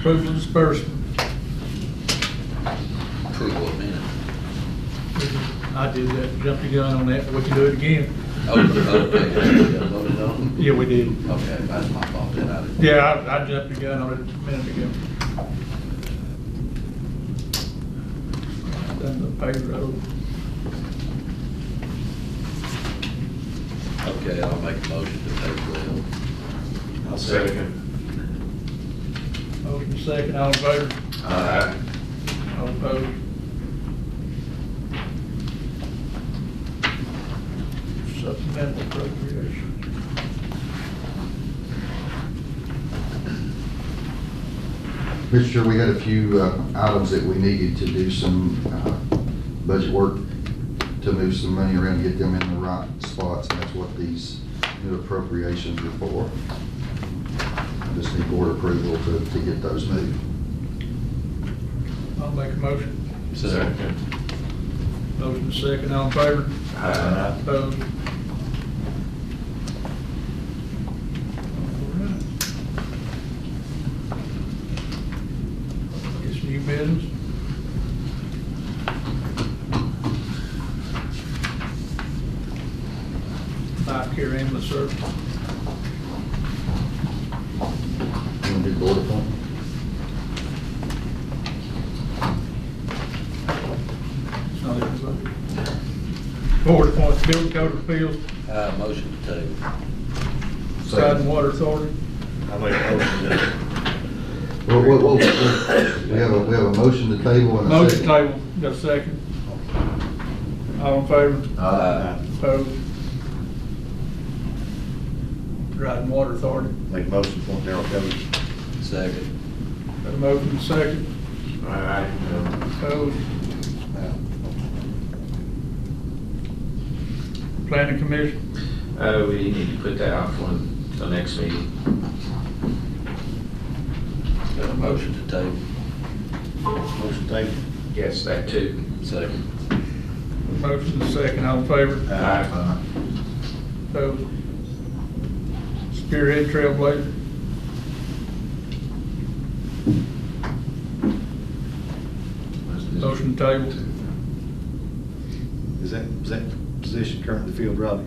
Approval of disbursement. Approval of minutes. I did that, jumped the gun on that, but we can do it again. Oh, okay, you got voted on? Yeah, we did. Okay, that's my fault, then I didn't. Yeah, I, I jumped the gun on it a minute ago. Done the payroll. Okay, I'll make a motion to pay bill. I'll second. Motion second, all in favor? Aye. All opposed? Supplemental appropriations. Mr. Chair, we had a few uh, items that we needed to do some uh, budget work to move some money around, get them in the right spots, and that's what these new appropriations are for. I Just need board approval to, to get those moved. I'll make a motion. Second. Motion second, all in favor? Aye. Opposed? Guess new business? Back here ambulance service. You want to do board appointment? It's not everybody. Board appoints building code appeals, Uh, motion to table. side and water authority. I'll make a motion to. Well, well, well, We have a, we have a motion to table and a Motion second. table, got a second? All in favor? Aye. Opposed? Dryden Water Authority. Make a motion to appoint Darrell Covey. Second. Got a motion and a second. Aye. Opposed? Planning Commission. Uh, we need to put that out for the next meeting. Got a motion to table. Motion table. Yes, that too. Second. Motion and a second. All in favor? Aye. Opposed? Spearhead Trailblazer. Motion table. Is that, is that position currently filled, Robbie?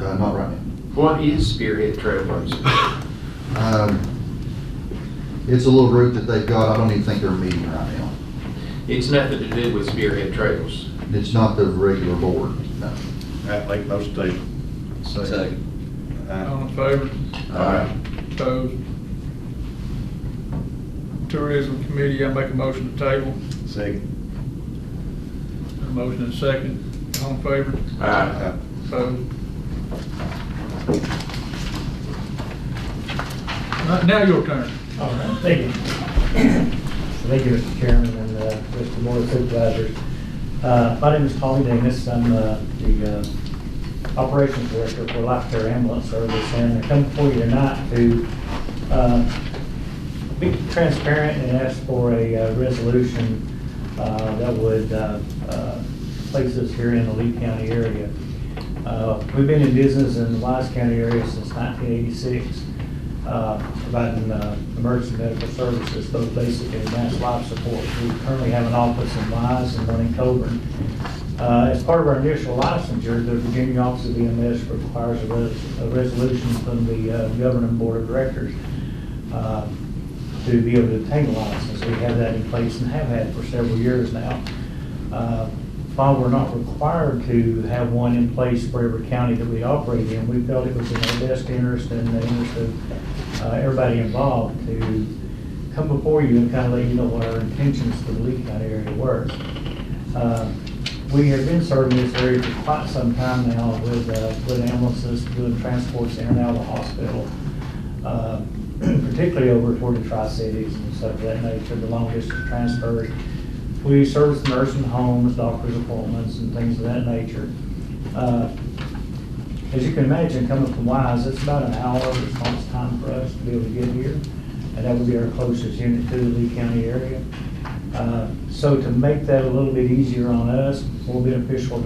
Uh, Not right now. What is Spearhead Trailblazers? Um, It's a little group that they've got, I don't even think they're meeting right now. It's nothing to do with Spearhead Trails. It's not the regular board, no. Aye, make a motion table. Second. Aye. All in favor? Aye. Opposed? Tourism Committee, I make a motion to table. Second. Got a motion and a second. All in favor? Uh, Aye. So. Right, Now your turn. All right, thank you. Thank you, Mr. Chairman and uh, Mr. Board of Supervisors. Uh, My name is Tommy Davis. I'm uh, the uh, Operations Director for Life Care Ambulance Service, and I come before you tonight to uh, be transparent and ask for a uh, resolution uh, that would uh, uh, place us here in the Lee County area. Uh, We've been in business in the Wise County area since 1986, uh, providing uh, emergency medical services, both basic and advanced life support. We currently have an office in Wise and one in Coburn. Uh, As part of our initial licensure, the Virginia Office of EMS requires a res- a resolution from the uh, governing board of directors uh, to be able to obtain a license. We have that in place and have had for several years now. Uh, While we're not required to have one in place for every county that we operate in, we felt it was in our best interest and the interest of uh, everybody involved to come before you and kind of let you know what our intentions for the Lee County area were. Uh, We have been serving this area for quite some time now with, uh, with ambulances, doing transports in and out of the hospital uh, particularly over toward the tri-cities and stuff of that nature, the long distance transfers. We service nursing homes, doctor's appointments, and things of that nature. Uh, As you can imagine, coming from Wise, it's about an hour of response time for us to be able to get here, and that would be our closest unit to the Lee County area. Uh, So to make that a little bit easier on us, we'll be an official